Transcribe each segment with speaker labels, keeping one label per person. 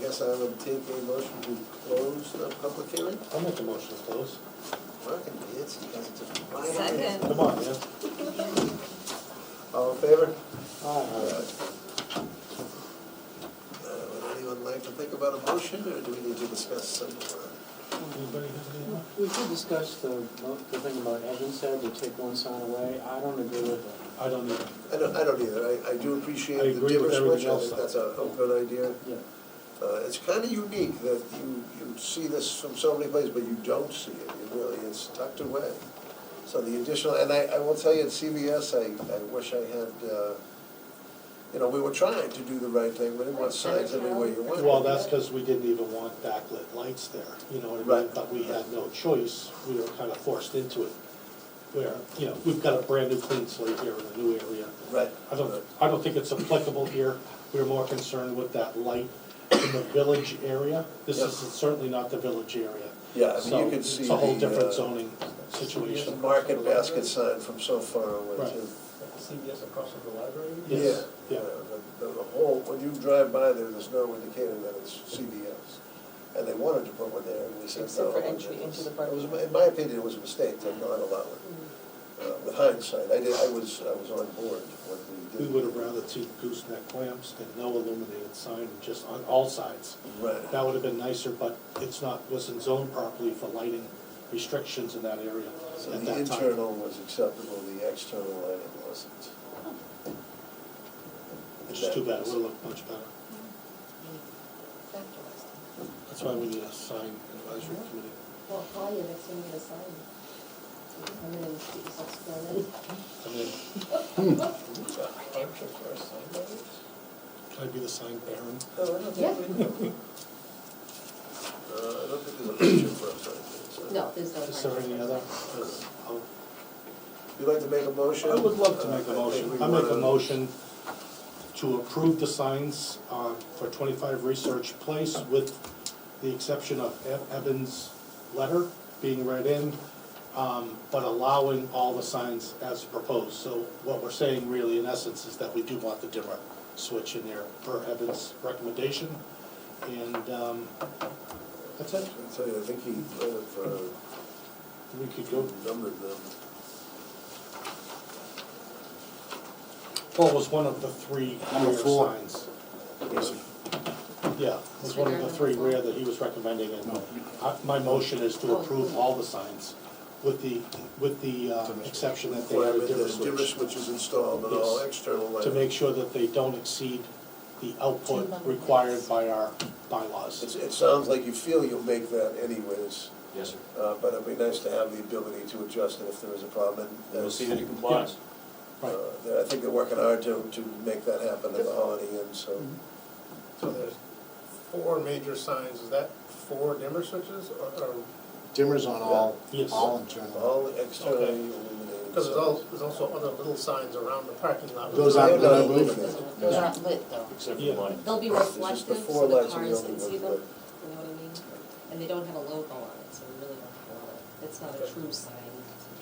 Speaker 1: guess Um, I would take a motion to close the public hearing.
Speaker 2: I'll make a motion to close.
Speaker 1: Fucking idiots, you guys are just.
Speaker 3: Second.
Speaker 2: Come on, man.
Speaker 1: All in favor?
Speaker 4: Uh,
Speaker 2: Aye.
Speaker 1: Uh, Would anyone like to think about a motion, or do we need to discuss some? uh,
Speaker 2: Anybody have any?
Speaker 4: We did discuss the, the thing about Evan said, to take one sign away, I don't agree with it.
Speaker 2: I don't need it.
Speaker 1: I don't, I don't either, I, I do appreciate
Speaker 2: I
Speaker 1: the
Speaker 2: agree with
Speaker 1: dimmer switch, I
Speaker 2: everything else.
Speaker 1: think that's a, a good idea.
Speaker 4: Yeah,
Speaker 1: Uh, it's kinda unique that you, you see this from so many places, but you don't see it, it really is tucked away. So the additional, and I, I will tell you, at CVS, I, I wish I had, uh, you know, we were trying to do the right thing, we didn't want signs everywhere you went.
Speaker 2: Well, that's because we didn't even want backlit lights there, you know what I mean?
Speaker 1: Right.
Speaker 2: But we had no choice, we were kind of forced into it. Where, you know, we've got a brand new clean slate here in the new area.
Speaker 1: Right.
Speaker 2: I don't, I don't think it's applicable here, we're more concerned with that light in the village area. This
Speaker 1: Yep.
Speaker 2: is certainly not the village area.
Speaker 1: Yeah, I mean,
Speaker 2: So
Speaker 1: you could see
Speaker 2: It's a whole
Speaker 1: the, uh,
Speaker 2: different zoning
Speaker 1: It's a
Speaker 2: situation.
Speaker 1: Market basket sign from so far away
Speaker 2: Right.
Speaker 1: too.
Speaker 5: CVS across from the library?
Speaker 2: Yes, yeah.
Speaker 1: The, the whole, when you drive by there, there's no indicator that it's CVS. And they wanted to put one there, and we said
Speaker 3: Except
Speaker 1: no.
Speaker 3: for entry
Speaker 1: It
Speaker 3: into
Speaker 1: was-
Speaker 3: the park.
Speaker 1: It was, in my opinion, it was a mistake to not allow it. Uh, With hindsight, I did, I was, I was on board when we
Speaker 2: We
Speaker 1: did.
Speaker 2: would have rather seen gooseneck lamps than no illuminated sign, just on all sides.
Speaker 1: Right.
Speaker 2: That would have been nicer, but it's not, wasn't zoned properly for lighting restrictions in that area
Speaker 1: So
Speaker 2: at
Speaker 1: the
Speaker 2: that time.
Speaker 1: internal was acceptable, the external lighting wasn't.
Speaker 2: It's just too bad, it would look much better. That's why we need a sign advisory committee.
Speaker 6: Well, call you next time you get a sign. Come in and get yourself squared in.
Speaker 2: I mean,
Speaker 5: Hampshire for a sign language?
Speaker 2: I'd be the sign baron.
Speaker 1: No, I don't
Speaker 6: Yeah.
Speaker 1: think we do. Uh, I don't think there's a picture for us, right there, so.
Speaker 6: No, there's no.
Speaker 2: Is there
Speaker 6: sign.
Speaker 2: any other? oh,
Speaker 1: You'd like to make a motion?
Speaker 2: I would love to make a
Speaker 1: Uh, I think
Speaker 2: motion.
Speaker 1: we
Speaker 2: I make a
Speaker 1: wanna-
Speaker 2: motion to approve the signs uh, for 25 Research Place with the exception of Ev- Evan's letter being read in, um, but allowing all the signs as proposed. So what we're saying really in essence is that we do want the dimmer switch in there per Evan's recommendation. And um, that's it.
Speaker 1: I'll tell you, I think he might have uh,
Speaker 2: We could go,
Speaker 1: numbered them.
Speaker 2: Paul was one of the three
Speaker 7: Number
Speaker 2: rear
Speaker 7: four.
Speaker 2: signs. Yeah, it was one of the three rare that he was recommending, and I- my motion is to approve all the signs with the, with the uh, exception that they have a
Speaker 1: Requirement
Speaker 2: dimmer
Speaker 1: that dimmer
Speaker 2: switch,
Speaker 1: switch is installed on all
Speaker 2: Yes.
Speaker 1: external
Speaker 2: to
Speaker 1: lighting.
Speaker 2: make sure that they don't exceed the output required by our bylaws.
Speaker 1: It's- It sounds like you feel you'll make that anyways,
Speaker 7: Yes, sir.
Speaker 1: uh, but it'd be nice to have the ability to adjust it if there is a problem. and
Speaker 7: We'll
Speaker 1: that's-
Speaker 7: see that it complies.
Speaker 2: Right,
Speaker 1: uh, they're- I think they're working hard to, to make that happen at the Holiday Inn, so.
Speaker 2: Mm-hmm.
Speaker 5: So there's four major signs, is that four dimmer switches or, or,
Speaker 8: Dimmer's on all,
Speaker 2: Yes.
Speaker 8: all internal.
Speaker 1: All externally
Speaker 5: Okay.
Speaker 1: illuminated.
Speaker 5: because there's al- there's also other little signs around the parking lot.
Speaker 8: Those
Speaker 1: They're
Speaker 8: aren't,
Speaker 1: not
Speaker 8: they're not moving.
Speaker 1: illuminated.
Speaker 6: Those aren't lit though.
Speaker 7: Except for
Speaker 2: Yeah.
Speaker 7: the lighting.
Speaker 6: They'll be
Speaker 1: It's just the
Speaker 6: reflective
Speaker 1: four
Speaker 6: so the
Speaker 1: lights are the
Speaker 6: cars
Speaker 1: only
Speaker 6: can
Speaker 1: ones
Speaker 6: see them, you know
Speaker 1: lit.
Speaker 6: what I mean? And they don't have a logo on it, so we really don't have a lot. It's not a true sign,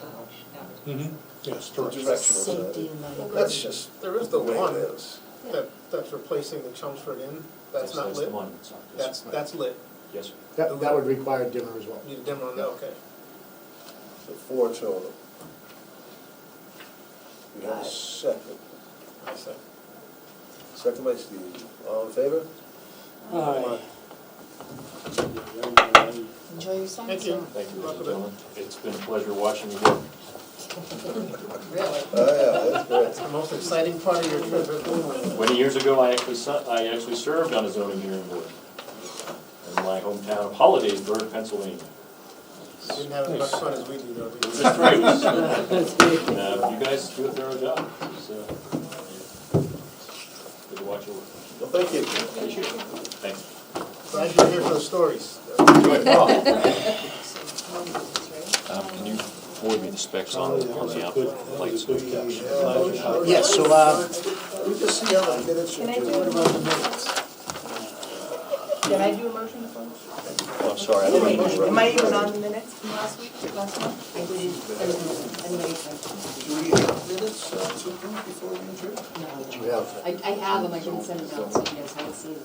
Speaker 6: Oh, it's not
Speaker 2: Mhm. yes,
Speaker 1: Direct.
Speaker 2: direction.
Speaker 3: Safety lighting.
Speaker 1: That's just,
Speaker 5: There is the
Speaker 1: the way it
Speaker 5: one
Speaker 1: is.
Speaker 5: that, that's replacing the Chelmsford Inn, that's not
Speaker 7: the
Speaker 5: lit.
Speaker 7: monument sign. Yes,
Speaker 5: That's,
Speaker 7: sir.
Speaker 5: that's lit,
Speaker 7: Yes, sir.
Speaker 8: That, that would require dimmer as well.
Speaker 5: need a dimmer on that, okay.
Speaker 1: So four total. We have a second.
Speaker 5: I see.
Speaker 1: Second by Steve. All in favor?
Speaker 4: aye.
Speaker 3: Enjoy your sign.
Speaker 5: Thank you.
Speaker 7: Thank you,
Speaker 5: Welcome in.
Speaker 7: ladies and gentlemen. It's been a pleasure watching you work.
Speaker 3: Really?
Speaker 1: Oh, yeah, that's
Speaker 5: It's
Speaker 1: great.
Speaker 5: the most exciting part of your trip, isn't it?
Speaker 7: Twenty years ago, I actually, se- I actually served on a zoning hearing board in my hometown of Hollidaysburg, Pennsylvania.
Speaker 5: You didn't have as much fun as we do, though.
Speaker 7: It
Speaker 5: did
Speaker 7: was
Speaker 5: you?
Speaker 7: a thrill. Uh, You guys do a thorough job, so. uh, Good to watch you work.
Speaker 1: Well, thank you.
Speaker 7: Appreciate it. Thanks.
Speaker 5: Glad you're here for the stories.
Speaker 7: Um, Can you forward me the specs on
Speaker 2: Probably that
Speaker 7: on
Speaker 2: was
Speaker 7: the
Speaker 2: a
Speaker 7: output?
Speaker 2: good, that was a good catch. Glad you had it.
Speaker 8: Yes, so, uh,
Speaker 1: We just see how the minutes are
Speaker 3: Can I do
Speaker 1: doing.
Speaker 3: it?
Speaker 4: About the minutes.
Speaker 3: Did I do a motion to close?
Speaker 7: Oh, I'm sorry, I don't have those
Speaker 3: Am I
Speaker 7: ready.
Speaker 3: even on the minutes from last week, last month?
Speaker 6: I didn't, there was no, anybody said,
Speaker 1: Do we have minutes uh, to approve before we adjourn?
Speaker 6: no.
Speaker 8: You have.
Speaker 6: I, I have them, I didn't send them out, so you guys haven't seen them.